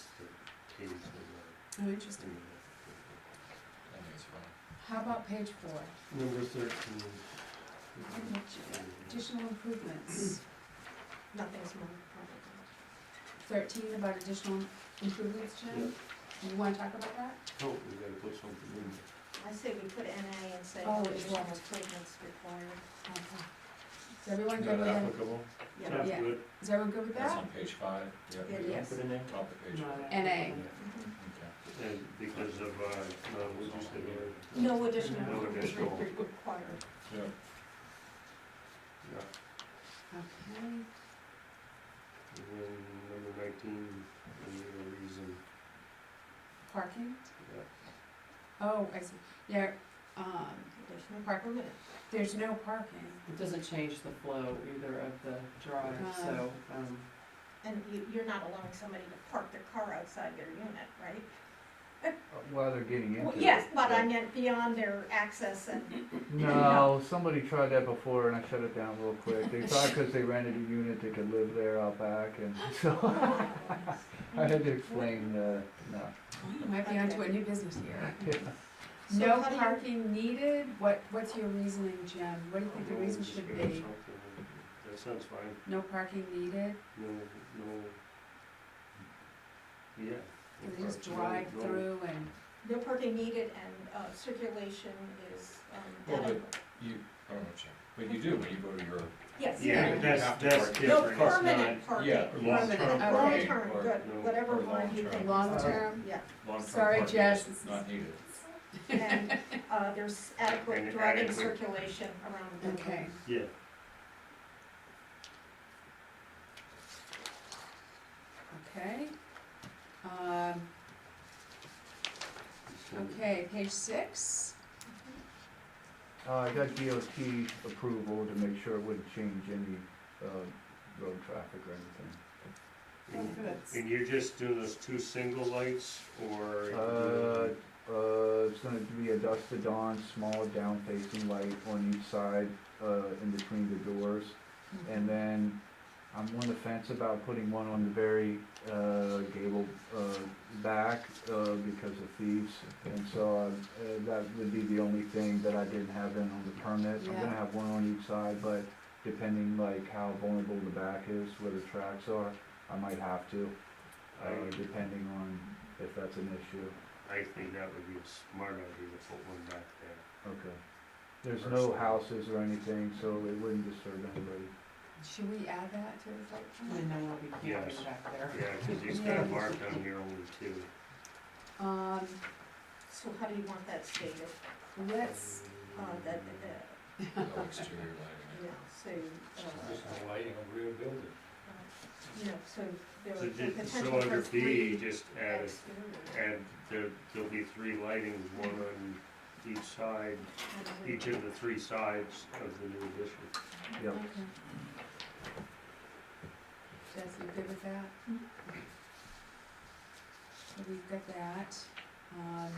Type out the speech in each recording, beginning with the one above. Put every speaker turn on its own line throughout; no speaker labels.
some Oh, interesting. How about page four?
Number thirteen.
Additional improvements.
Nothing's more important.
Thirteen about additional improvements, Jim? You wanna talk about that?
Oh, we gotta put something in.
I say we put NA and say
Oh, it's
additional
wrong.
improvements required.
Is everyone
Is
good
that
with that?
applicable?
Yeah.
Yeah.
good.
Is everyone good with
That's
that?
on page five, yeah,
It is.
Put in there?
top of page five.
NA.
Mm-hmm.
Mhm.
Okay.
And because of, uh, no, we just did it.
No additional
No
improvements
additional.
re- required.
Yeah,
Yeah.
Okay,
And then number nineteen, we need a reason.
parking?
Yeah.
Oh, I see. Yeah, um,
Additional permit.
there's no parking. Uh,
It doesn't change the flow either of the drive, so, um,
And you, you're not allowing somebody to park their car outside their unit, right?
Uh, While they're getting into
Well,
it.
Yes, but I meant beyond their access and
No, somebody tried that before and I shut it down real quick. They thought because they rented a unit, they could live there out back and so I had to explain, uh, no.
oh, You might be onto a new business here.
So
No
how do you-
parking needed? What, what's your reasoning, Jim? What do you think the reason should be?
That sounds fine.
No parking needed?
No, no. Yeah.
Can they just drive
No, no.
through and?
No parking needed and, uh, circulation is, um,
Well, but-
adequate.
you, I don't know, Jim, Oh, but you do when you go to your,
Yes.
Yeah,
You
but that's,
have to
that's
park.
No
different. It's
permanent
not-
parking,
yeah,
permanent,
long-term
Permanent,
parking
long-term,
or
good,
no,
whatever
or
one you
long-term.
think.
Long
Uh,
term?
Yeah,
long-term
Sorry,
parking
Jess.
is not needed.
and, uh, there's adequate
And
driving
adequate.
circulation around the
Okay,
Yeah.
okay. Um,
it's not-
okay, page six.
Uh, I got DOT approval to make sure it wouldn't change any, uh, road traffic or anything.
And-
Okay, that's-
And you're just doing those two single lights, or?
Uh, Uh, it's gonna be a dusk to dawn, small down facing light on each side, uh, in between the doors. And then I'm on the fence about putting one on the very uh, gable uh, back uh, because of thieves. And so uh, uh, that would be the only thing that I didn't have in on the permit. I'm
Yeah.
gonna have one on each side, but depending like how vulnerable the back is, where the tracks are, I might have to, uh,
I,
depending on if that's an issue.
I think that would be a smart idea to put one back there.
Okay. There's no houses or anything, so it wouldn't disturb anybody.
Should we add that to the site
and
plan?
then I'll be
Yes.
camping back there.
Yeah, because he's got it marked on here only two.
Um,
So how do you want that stated,
let's,
uh, that, that,
No exterior lighting.
yeah, so, uh,
no lighting on rear building.
you know, so there
So
would be
just, so
potential
under
for
B,
three
just add,
exterior.
add, there, there'll be three lightings, one on each side, each of the three sides of the new addition.
Yep.
okay. Jess, you good with that?
Mhm.
Mm-hmm. So we've got that. Um,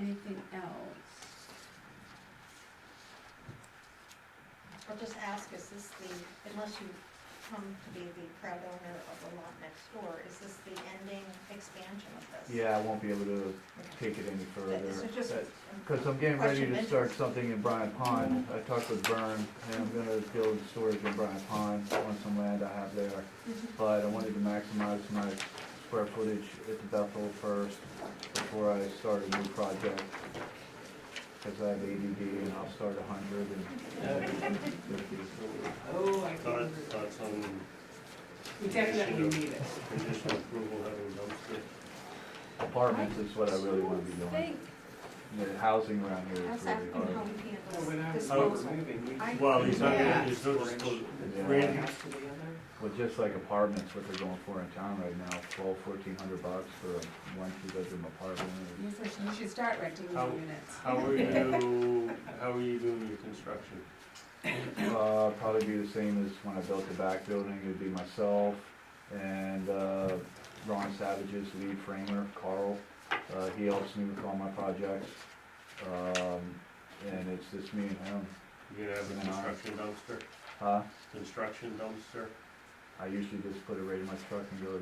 anything else?
I'll just ask, is this the, unless you come to be the proud owner of the lot next door, is this the ending expansion of this?
Yeah, I won't be able to take it any further.
That- This is just.
That-
um,
Because I'm getting ready
Question,
to
Mitch.
start something in Bryant Pond. I talked with Vern, and I'm gonna build storage in Bryant Pond on some land I have there.
Mhm.
But I wanted to maximize my square footage at the Bethel first before I start a new project. Because I have ADD and I'll start a hundred and fifty.
Oh, I
Thought,
can,
thoughts on
we definitely need it.
conditional approval having dumpster?
Apartments is what I really wanna be
I
doing.
think-
The housing around
I
here is
was
really
asking
hard.
how we
Well, when I
handle
was-
disposal.
I-
Well, he's not
yeah.
gonna, he's not just,
Yeah.
One house to the other.
Well, just like apartments, what they're going for in town right now, twelve, fourteen hundred bucks for a one, two bedroom apartment.
You first- you should start renting these
How-
units.
how are you, how are you doing your construction?
Uh, probably be the same as when I built the back building, it'd be myself and, uh, Ron Savage's lead framer, Carl. Uh, he helps me with all my projects, um, and it's just me and him,
You gonna have a construction dumpster,
huh?
construction dumpster?
I usually just put it right in my truck and go